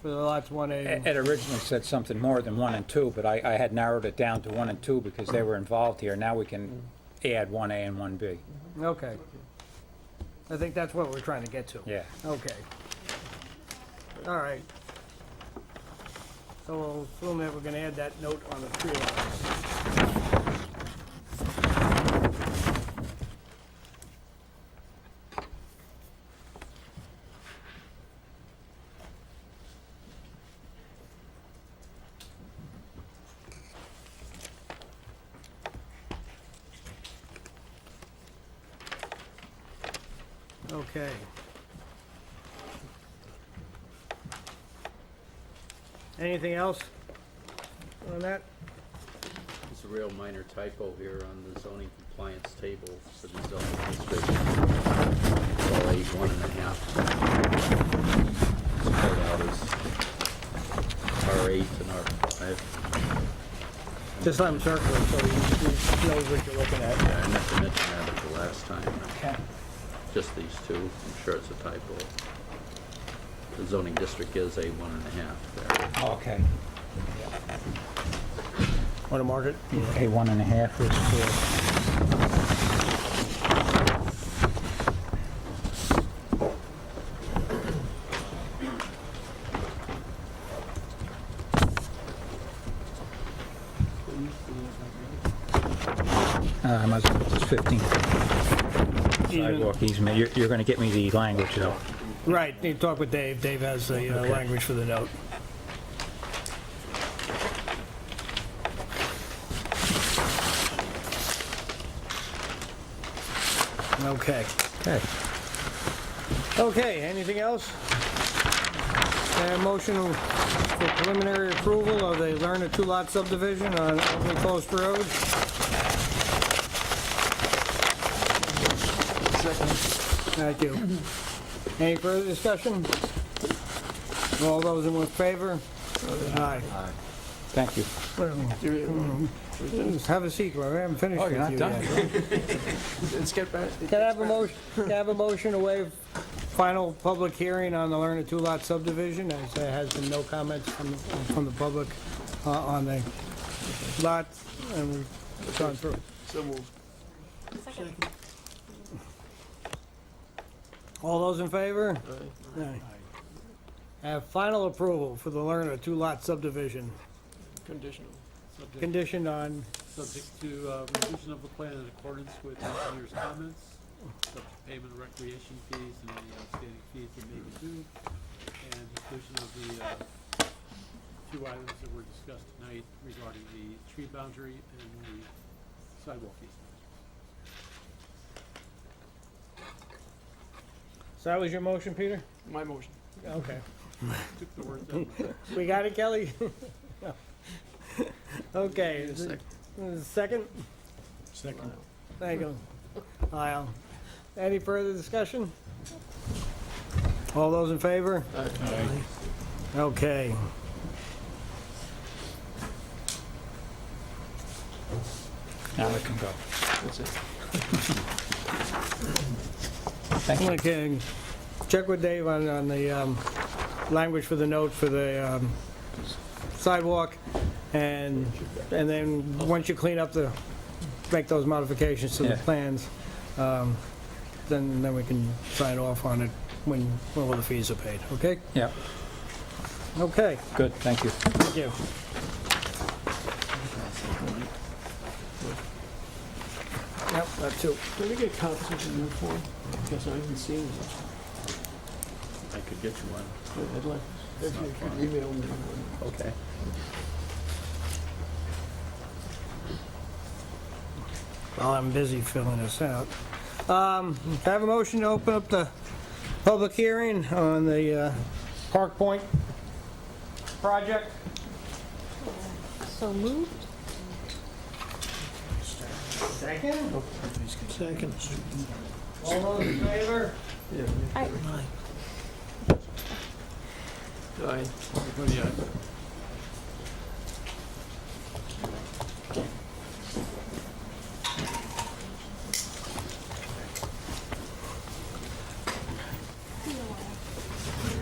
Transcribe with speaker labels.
Speaker 1: for the lots 1A and
Speaker 2: Ed originally said something more than one and two, but I, I had narrowed it down to one and two because they were involved here. Now we can add one A and one B.
Speaker 1: Okay. I think that's what we're trying to get to.
Speaker 2: Yeah.
Speaker 1: Okay. All right. So we'll assume that we're gonna add that note on the tree lines. Okay. Anything else on that?
Speaker 3: It's a real minor typo here on the zoning compliance table for the zoning district. Well, eight, one and a half. Spread out as R eight and R five.
Speaker 1: Just let him circle it so he he knows what you're looking at.
Speaker 3: Yeah, I meant to mention that at the last time. Just these two. I'm sure it's a typo. The zoning district is a one and a half there.
Speaker 2: Okay.
Speaker 1: Want to mark it?
Speaker 2: A one and a half is for. Uh, I might as well, it's fifteen. Sidewalk easement, you're, you're gonna get me the language though.
Speaker 1: Right, need to talk with Dave. Dave has the uh, language for the note. Okay.
Speaker 2: Okay.
Speaker 1: Okay, anything else? Uh, Motion for preliminary approval of the Lerner two-lot subdivision on Old Post Road. Thank you. Any further discussion? All those in favor? Aye.
Speaker 2: Thank you.
Speaker 4: Hmm.
Speaker 1: Have a seat, Larry, I haven't finished
Speaker 2: Oh,
Speaker 1: with
Speaker 2: you're
Speaker 1: you
Speaker 2: not
Speaker 1: yet.
Speaker 2: done?
Speaker 4: Let's get back.
Speaker 1: Can I have a motion, can I have a motion to waive final public hearing on the Lerner two-lot subdivision, as there has been no comments from, from the public uh, on the lot, and we've gone through.
Speaker 4: So moved.
Speaker 1: All those in favor?
Speaker 4: uh,
Speaker 1: Aye. Have final approval for the Lerner two-lot subdivision,
Speaker 4: Conditional.
Speaker 5: Subject,
Speaker 1: conditioned on,
Speaker 5: subject to uh, revision of the plan in accordance with engineer's comments, subject to payment of recreation fees and any outstanding fees that may be due, and inclusion of the uh, two items that were discussed tonight regarding the tree boundary and the sidewalk easement.
Speaker 1: so that was your motion, Peter?
Speaker 4: My motion.
Speaker 1: Okay.
Speaker 5: Took the words out of my mouth.
Speaker 1: We got it, Kelly? Okay. is it- is it Second?
Speaker 4: Second.
Speaker 1: There you go. Aye. Any further discussion? All those in favor? Okay.
Speaker 2: Now I can go.
Speaker 4: That's it.
Speaker 2: Thank you.
Speaker 1: Okay, check with Dave on, on the, um, language for the note for the, um, sidewalk, and, and then, once you clean up the, make those modifications to the
Speaker 2: Yeah.
Speaker 1: plans, um, then, then we can sign off on it when, when all the fees are paid, okay?
Speaker 2: Yeah,
Speaker 1: Okay,
Speaker 2: good, thank you.
Speaker 1: thank you. Yep, that too.
Speaker 4: Can we get copies of the new form? Because I haven't seen it.
Speaker 3: I could get you one.
Speaker 4: I'd like, if you could email me. one.
Speaker 3: Okay.
Speaker 1: While I'm busy filling this out. Um, can I Have a motion to open up the public hearing on the uh, Park Point project.
Speaker 6: So moved?
Speaker 1: Second,
Speaker 4: Second.
Speaker 1: all those in favor?
Speaker 4: Yeah.
Speaker 6: Aye.
Speaker 4: Aye.
Speaker 5: Everybody, uh,